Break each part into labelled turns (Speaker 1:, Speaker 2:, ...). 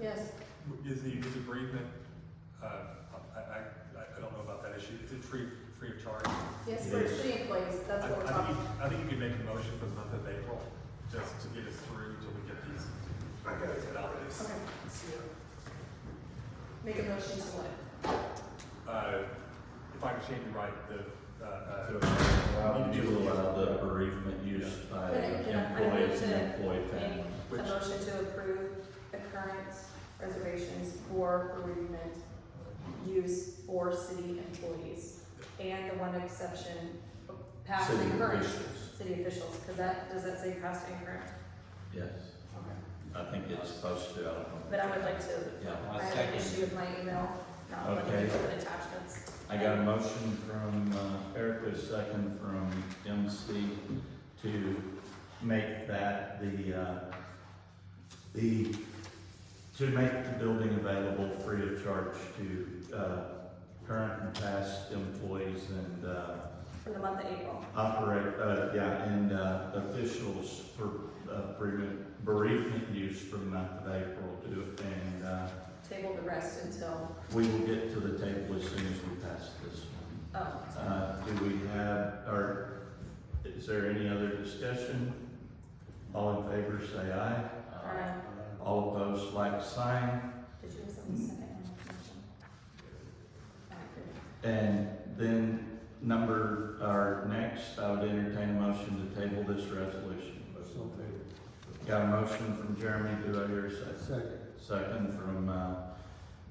Speaker 1: Yes.
Speaker 2: Is the, is bereavement, uh, I, I, I don't know about that issue, is it free, free of charge?
Speaker 1: Yes, for
Speaker 3: Yes.
Speaker 1: city employees, that's
Speaker 2: I-
Speaker 1: what we're
Speaker 2: I think
Speaker 1: talking.
Speaker 2: you- I think you could make a motion for the month of April, just to get us through till we get these.
Speaker 1: Okay. Make a motion to what?
Speaker 2: Uh, if I understand you right, the, uh,
Speaker 3: To
Speaker 2: uh,
Speaker 3: allow to allow the bereavement use by
Speaker 1: Put it in a-
Speaker 3: employees and
Speaker 1: I mean,
Speaker 3: employee family.
Speaker 1: A
Speaker 2: Which-
Speaker 1: motion to approve the current reservations for bereavement use for city employees. And the one exception, past
Speaker 3: City
Speaker 1: and current,
Speaker 3: officials.
Speaker 1: city officials, because that, does that say past and current?
Speaker 3: Yes,
Speaker 1: Okay.
Speaker 3: I think it's supposed to, I don't know.
Speaker 1: But I would like to,
Speaker 3: Yeah,
Speaker 1: I have an issue with my email, not letting
Speaker 3: Okay.
Speaker 1: people put attachments.
Speaker 3: I got a motion from uh, Eric, with a second from MC to make that the, uh, the, to make the building available free of charge to uh, current and past employees and uh,
Speaker 1: For the month of April.
Speaker 3: operate, uh, yeah, and, uh, officials for, uh, bereavement- bereavement use for the month of April to, and, uh,
Speaker 1: Table the rest until,
Speaker 3: we will get to the table as soon as we pass this one.
Speaker 1: oh,
Speaker 3: Uh, do we have, or is there any other discussion? All in favor, say aye.
Speaker 1: Aye.
Speaker 3: All opposed, like sign.
Speaker 1: Um, did you have something second? Back here.
Speaker 3: And then number, our next, I would entertain a motion to table this resolution.
Speaker 4: So moved.
Speaker 3: Got a motion from Jeremy, do I hear a second?
Speaker 4: Second.
Speaker 3: Second from, uh,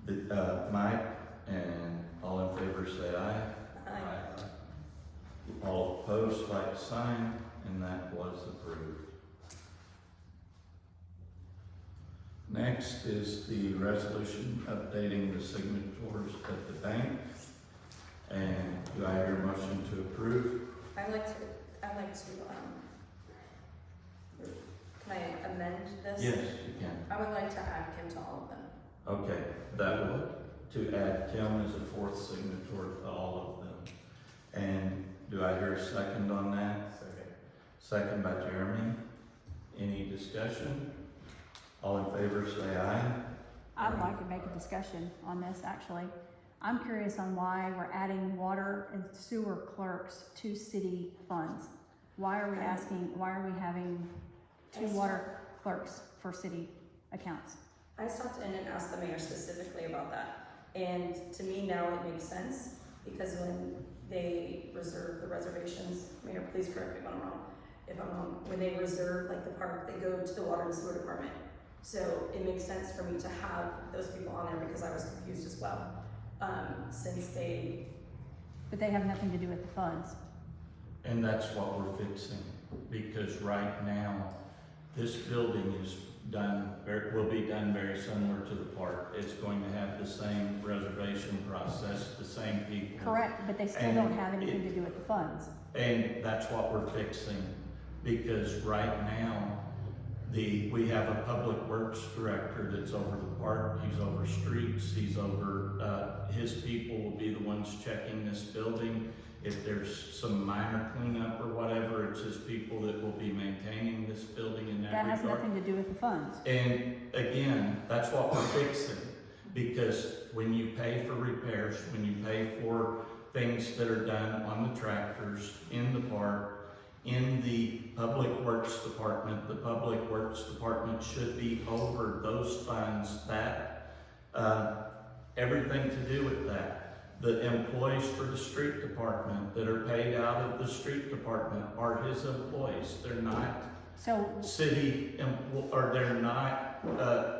Speaker 3: the, uh, Mike, and all in favor say aye.
Speaker 1: Aye.
Speaker 3: All opposed, like sign, and that was approved. Next is the resolution updating the signatures at the bank. And do I hear a motion to approve?
Speaker 1: I'd like to, I'd like to, um, can I amend this?
Speaker 3: Yes, you can.
Speaker 1: I would like to add Kim to all of them.
Speaker 3: Okay, that would, to add Kim as a fourth signature to all of them. And do I hear a second on that?
Speaker 4: Second.
Speaker 3: Second by Jeremy. Any discussion? All in favor, say aye.
Speaker 5: I'd like to make a discussion on this, actually. I'm curious on why we're adding water and sewer clerks to city funds. Why are we asking, why are we having two water clerks for city accounts?
Speaker 1: I stopped in and asked the mayor specifically about that, and to me now it makes sense, because when they reserve the reservations, mayor, please correct me if I'm wrong, if I'm wrong, when they reserve like the park, they go to the water and sewer department. So it makes sense for me to have those people on there, because I was confused as well, um, since they
Speaker 5: But they have nothing to do with the funds.
Speaker 3: And that's what we're fixing, because right now, this building is done, ver- will be done very similar to the park. It's going to have the same reservation process, the same people.
Speaker 5: Correct, but they still don't have anything to do with the funds.
Speaker 3: And that's what we're fixing, because right now, the, we have a public works director that's over the park, he's over streets, he's over, uh, his people will be the ones checking this building. If there's some minor cleanup or whatever, it's his people that will be maintaining this building in that
Speaker 5: That has
Speaker 3: regard.
Speaker 5: nothing to do with the funds.
Speaker 3: And again, that's what we're fixing, because when you pay for repairs, when you pay for things that are done on the tractors, in the park, in the public works department, the public works department should be over those funds, that, uh, everything to do with that. The employees for the street department that are paid out of the street department are his employees, they're not
Speaker 5: So
Speaker 3: city, em- or they're not, uh,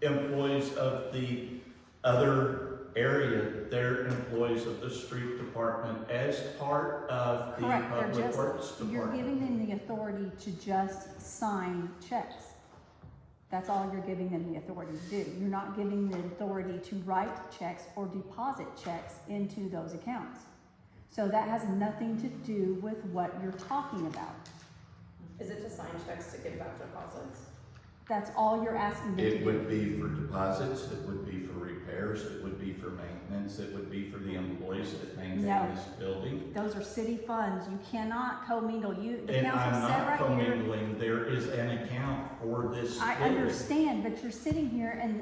Speaker 3: employees of the other area, they're employees of the street department as part of the
Speaker 5: Correct, they're
Speaker 3: public
Speaker 5: just-
Speaker 3: works
Speaker 5: you're
Speaker 3: department.
Speaker 5: giving them the authority to just sign checks. That's all you're giving them the authority to do. You're not giving them the authority to write checks or deposit checks into those accounts. So that has nothing to do with what you're talking about.
Speaker 1: Is it to sign checks to give back deposits?
Speaker 5: That's all you're asking them to do.
Speaker 3: It would be for deposits, it would be for repairs, repairs, it would be for maintenance, it would be for the employees that maintain
Speaker 5: No.
Speaker 3: this building.
Speaker 5: Those are city funds, you cannot commingle, you, the
Speaker 3: And
Speaker 5: council
Speaker 3: I'm
Speaker 5: said
Speaker 3: not
Speaker 5: right here.
Speaker 3: commingling, there is an account for this
Speaker 5: I
Speaker 3: building.
Speaker 5: understand, but you're sitting here and